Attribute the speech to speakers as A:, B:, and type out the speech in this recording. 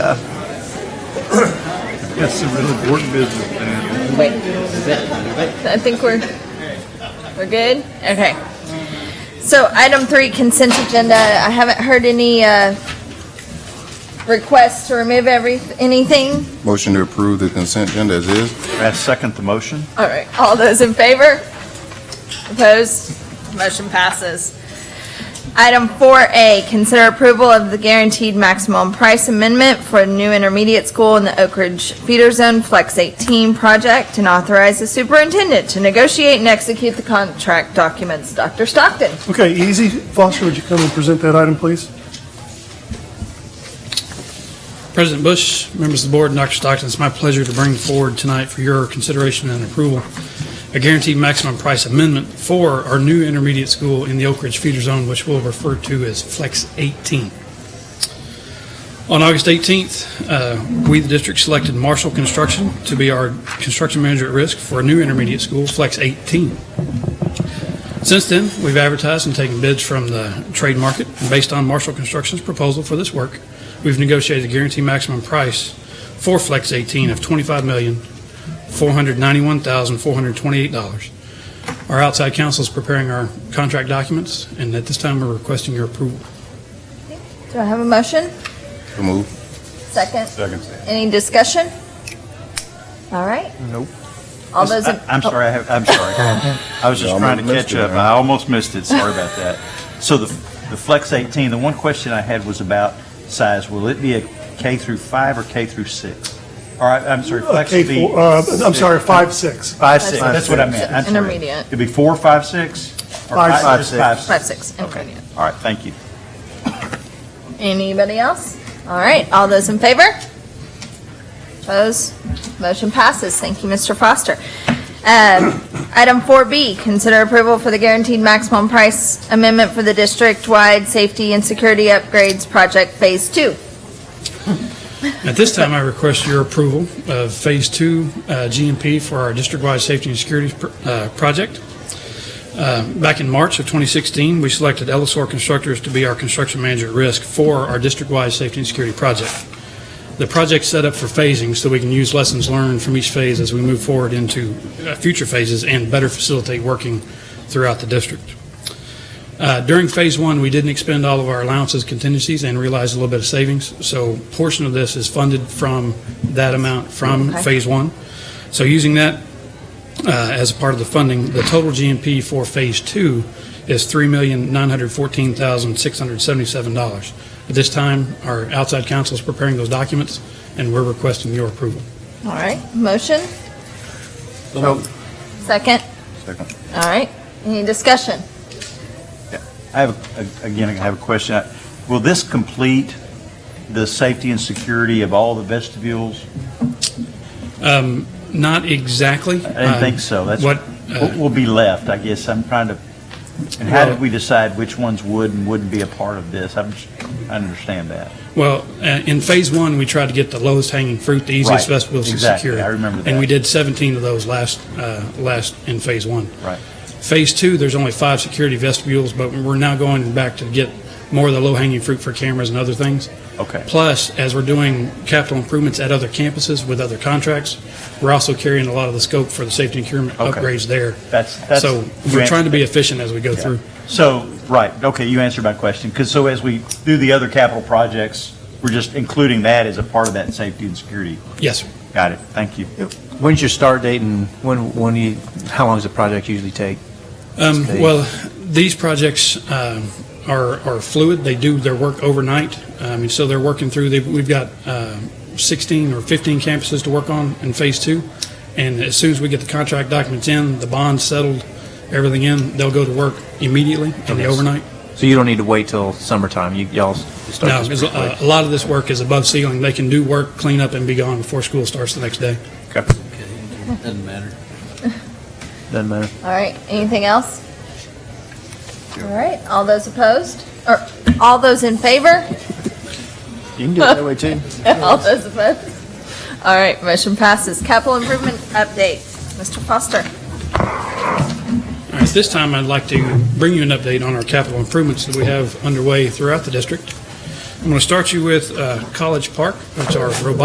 A: That's some real important business, man.
B: Wait. I think we're we're good. Okay. So item three, consent agenda. I haven't heard any uh, requests to remove every anything.
C: Motion to approve the consent agenda as is.
A: I second the motion.
B: All right. All those in favor? Opposed? Motion passes. Item four A, consider approval of the guaranteed maximum price amendment for a new intermediate school in the Oak Ridge feeder zone Flex eighteen project and authorize the superintendent to negotiate and execute the contract documents. Dr. Stockton?
D: Okay, easy. Foster, would you come and present that item, please?
E: President Bush, members of the board, and Dr. Stockton, it's my pleasure to bring forward tonight for your consideration and approval a guaranteed maximum price amendment for our new intermediate school in the Oak Ridge feeder zone, which we'll refer to as Flex 18. On August 18th, uh, we, the district, selected Marshall Construction to be our construction manager at risk for a new intermediate school, Flex 18. Since then, we've advertised and taken bids from the trade market. and Based on Marshall Construction's proposal for this work, we've negotiated a guarantee maximum price for Flex 18 of $25,491,428. Our outside counsel is preparing our contract documents, and at this time, we're requesting your approval.
B: Do I have a motion?
C: So moved.
B: Second?
A: Second.
B: Any discussion? All right.
A: Nope.
B: All those in... Oh.
A: I'm sorry, I have, I'm sorry. I was just
C: Yeah, I
A: trying to
C: almost
A: catch
C: missed it,
A: up.
C: man.
A: I almost missed it. Sorry about that. So the, the Flex 18, the one question I had was about size. Will it be a K through five or K through six? All right, I'm sorry,
D: Uh,
A: Flex
D: K
A: would
D: four-
A: be.
D: uh, I'm
A: six.
D: sorry, five, six.
A: Five, six, that's what I meant. I'm sorry.
B: Intermediate.
A: It'd be four, five, six? Or
D: Five,
A: five-
D: five,
A: just
D: six.
B: Five, six, intermediate.
A: Okay. All right, thank you.
B: Anybody else? All right, all those in favor? Opposed? Motion passes. Thank you, Mr. Foster. Um, Item 4B, consider approval for the guaranteed maximum price amendment for the district-wide safety and security upgrades project Phase 2.
E: At this time, I request your approval of Phase 2 uh, GMP for our district-wide safety and security pr- uh, project. Uh, Back in March of 2016, we selected Ellisor Constructors to be our construction manager at risk for our district-wide safety and security project. The project's set up for phasing, so we can use lessons learned from each phase as we move forward into uh, future phases and better facilitate working throughout the district. Uh, During Phase One, we didn't expend all of our allowances, contingencies, and realized a little bit of savings. So portion of this is funded from that amount from
B: Okay.
E: Phase One. So using that uh, as a part of the funding, the total GMP for Phase Two is $3,914,677. At this time, our outside counsel is preparing those documents, and we're requesting your approval.
B: All right, motion?
C: So-
B: Second?
C: Second.
B: All right, any discussion?
A: I have, a- again, I have a question. Will this complete the safety and security of all the vestibules?
E: Um, Not exactly.
A: I didn't think so. That's
E: What,
A: What
E: uh,
A: will be left, I guess, I'm trying to, and how
E: Well-
A: did we decide which ones would and wouldn't be a part of this? I'm, just- I understand that.
E: well, uh, in Phase One, we tried to get the lowest hanging fruit, the easiest
A: Right,
E: vestibules to
A: exactly.
E: secure.
A: I remember
E: And
A: that.
E: we did 17 of those last, uh, last in Phase One.
A: Right.
E: Phase two, there's only five security vestibules, but we're now going back to get more of the low-hanging fruit for cameras and other things.
A: Okay.
E: Plus, as we're doing capital improvements at other campuses with other contracts, we're also carrying a lot of the scope for the safety and procurement
A: Okay.
E: upgrades there.
A: That's, that's.
E: So
A: you
E: we're
A: answered
E: trying to be
A: that.
E: efficient as we go through.
A: So, right, okay, you answered my question, because so as we do the other capital projects, we're just including that as a part of that safety and security.
E: Yes, sir.
A: Got it, thank you.
F: When's your start date and when, when you, how long does the project usually take?
E: Um,
F: Steve?
E: well, these projects um, are, are fluid. They do their work overnight. Um, and so they're working through, they, we've got um 16 or 15 campuses to work on in phase two. And as soon as we get the contract documents in, the bonds settled, everything in, they'll go to work immediately in the
F: Okay.
E: overnight.
F: So you don't need to wait till summertime, you, y'all s-
E: No,
F: start this
E: because
F: pretty
E: uh,
F: quick?
E: a lot of this work is above ceiling. They can do work, clean up, and be gone before school starts the next day.
G: Doesn't matter.
F: Doesn't matter.
B: All right, anything else? All right, all those opposed, or all those in favor?
F: You can do it that way too.
B: All those opposed? All right, motion passes. Capital improvement update, Mr. Foster.
E: All right, At this time, I'd like to bring you an update on our capital improvements that we have underway throughout the district. I'm going to start you with uh, College Park, which our robotic